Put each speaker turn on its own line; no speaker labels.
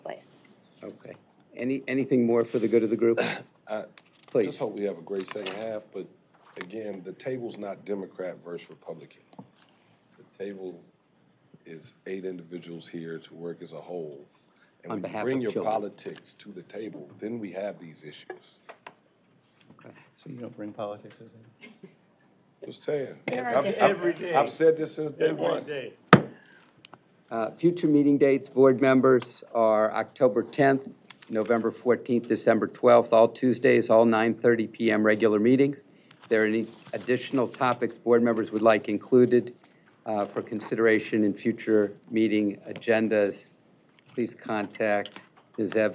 Any, anything more for the good of the group?
I
Please.
just hope we have a great second half, but again, the table's not Democrat versus Republican. The table is eight individuals here to work as a whole.
On
And when
behalf
you bring
of
your
children.
politics to the table, then we have these issues.
So you don't bring politics into it?
Just saying.
There are
I've- I've-
Every day.
I've said this since day
Every
one.
day.
Uh, Future meeting dates, board members, are October 10th, November 14th, December 12th, all Tuesdays, all 9:30 PM regular meetings. If there are any additional topics board members would like included uh, for consideration in future meeting agendas, please contact Ms. Evans.